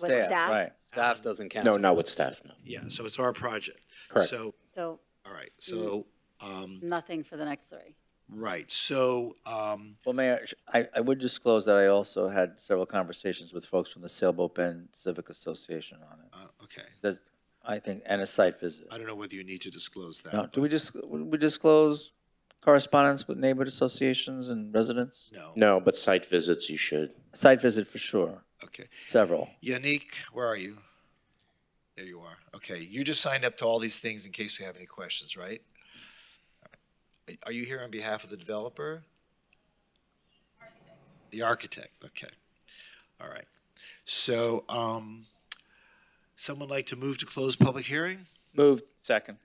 With staff. Right. Um, Staff doesn't count. No, not with staff, no. Yeah, so it's our project. Correct. So, So all right, so, um, nothing for the next three. right, so, um, Well, Mayor, sh- I, I would disclose that I also had several conversations with folks from the Sailboat Bend Civic Association on it. uh, okay, There's, I think, and a site visit. I don't know whether you need to disclose that. No, do we just, would we disclose correspondence with neighborhood associations and residents? No, No, but site visits, you should. Site visit for sure, okay. several. Yannick, where are you? There you are. Okay, you just signed up to all these things in case we have any questions, right? Are you here on behalf of the developer? The architect, okay. All right. So, um, someone like to move to close public hearing? Moved. Second.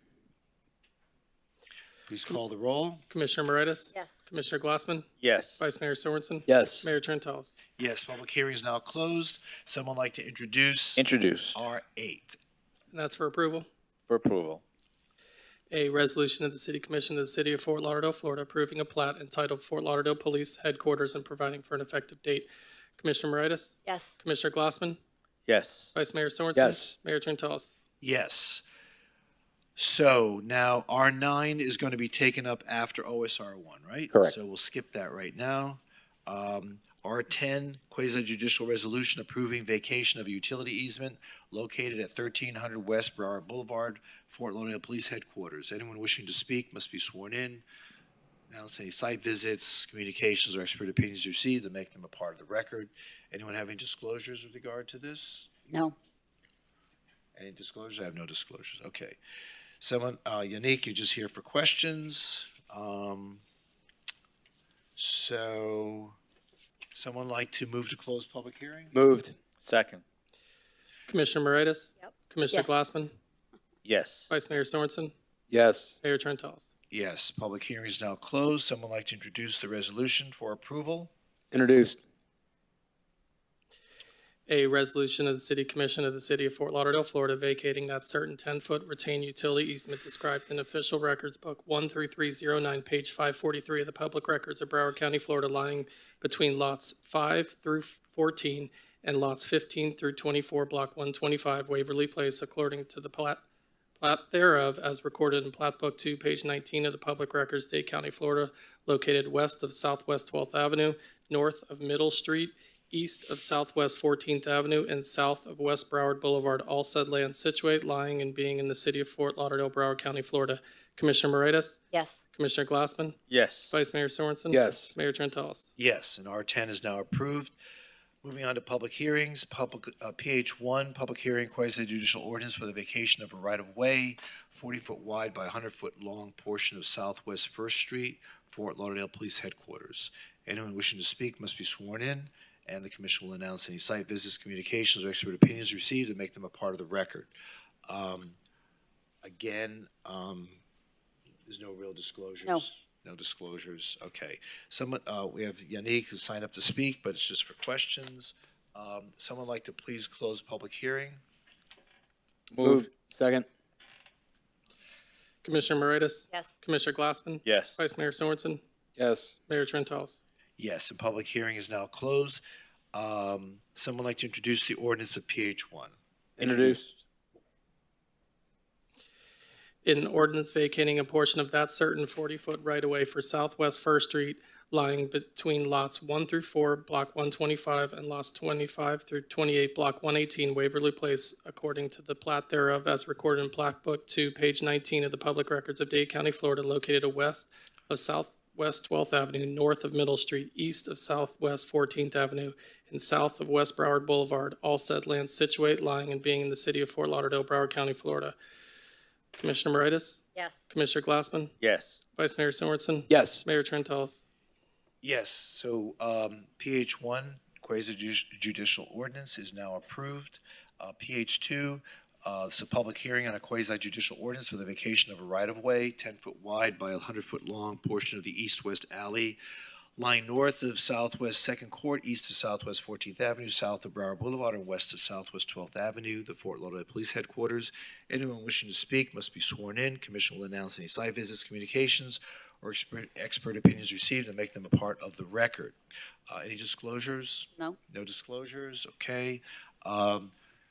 Please call the roll. Commissioner Moritas? Yes. Commissioner Glassman? Yes. Vice Mayor Sorensen? Yes. Mayor Trentalles? Yes, public hearing is now closed. Someone like to introduce Introduced R eight. And that's for approval. for approval. A resolution of the City Commission of the City of Fort Lauderdale, Florida, approving a plat entitled Fort Lauderdale Police Headquarters and providing for an effective date. Commissioner Moritas? Yes. Commissioner Glassman? Yes. Vice Mayor Sorensen? Yes. Mayor Trentalles? Yes. So now R nine is going to be taken up after OSR one, right? Correct. So we'll skip that right now. Um, R ten, quasi judicial resolution approving vacation of a utility easement located at thirteen hundred West Broward Boulevard, Fort Lauderdale Police Headquarters. Anyone wishing to speak must be sworn in. Announce any site visits, communications, or expert opinions received to make them a part of the record. Anyone have any disclosures with regard to this? No. Any disclosures? I have no disclosures. Okay. Someone, uh, Yannick, you're just here for questions. Um, so, someone like to move to close public hearing? Moved. Second. Commissioner Moritas? Yep. Commissioner Yes. Glassman? Yes. Vice Mayor Sorensen? Yes. Mayor Trentalles? Yes, public hearing is now closed. Someone like to introduce the resolution for approval? Introduced. A resolution of the City Commission of the City of Fort Lauderdale, Florida, vacating that certain 10-foot retained utility easement described in Official Records Book 13309, page 543 of the Public Records of Broward County, Florida, lying between lots 5 through 14 and lots 15 through 24, Block 125, Waverly Place, according to the plat plat thereof as recorded in Plat Book 2, page 19 of the Public Records, Dade County, Florida, located west of Southwest 12th Avenue, north of Middle Street, east of Southwest 14th Avenue, and south of West Broward Boulevard, all said land situate, lying and being in the city of Fort Lauderdale, Broward County, Florida. Commissioner Moritas? Yes. Commissioner Glassman? Yes. Vice Mayor Sorensen? Yes. Mayor Trentalles? Yes, and R10 is now approved. Moving on to public hearings, public, uh, PH one, public hearing quasi judicial ordinance for the vacation of a right-of-way, forty-foot wide by hundred-foot long portion of Southwest First Street, Fort Lauderdale Police Headquarters. Anyone wishing to speak must be sworn in, and the commission will announce any site visits, communications, or expert opinions received and make them a part of the record. Um, Again, um, there's no real disclosures? No. No disclosures, okay. Someone, uh, we have Yannick who signed up to speak, but it's just for questions. Um, someone like to please close public hearing? Moved. Second. Commissioner Moritas? Yes. Commissioner Glassman? Yes. Vice Mayor Sorensen? Yes. Mayor Trentalles? Yes, the public hearing is now closed. Um, someone like to introduce the ordinance of PH one? Introduced. an ordinance vacating a portion of that certain 40-foot right-of-way for Southwest First Street lying between lots 1 through 4, Block 125, and lots 25 through 28, Block 118, Waverly Place, according to the plat thereof as recorded in Plat Book 2, page 19 of the Public Records of Dade County, Florida, located a west of Southwest 12th Avenue, north of Middle Street, east of Southwest 14th Avenue, and south of West Broward Boulevard, all said lands situate, lying, and being in the city of Fort Lauderdale, Broward County, Florida. Commissioner Moritas? Yes. Commissioner Glassman, Yes. Vice Mayor Sorensen, Yes. Mayor Trentalles. Yes, so, um, PH one, quasi judici- judicial ordinance is now approved. Uh, PH two, uh, it's a public hearing on a quasi judicial ordinance for the vacation of a right-of-way, ten-foot wide by a hundred-foot-long portion of the east-west alley lying north of Southwest Second Court, east of Southwest Fourteenth Avenue, south of Broward Boulevard, and west of Southwest Twelfth Avenue, the Fort Lauderdale Police Headquarters. Anyone wishing to speak must be sworn in. Commission will announce any site visits, communications, or expert, expert opinions received and make them a part of the record. Uh, any disclosures? No. No disclosures, okay. Um,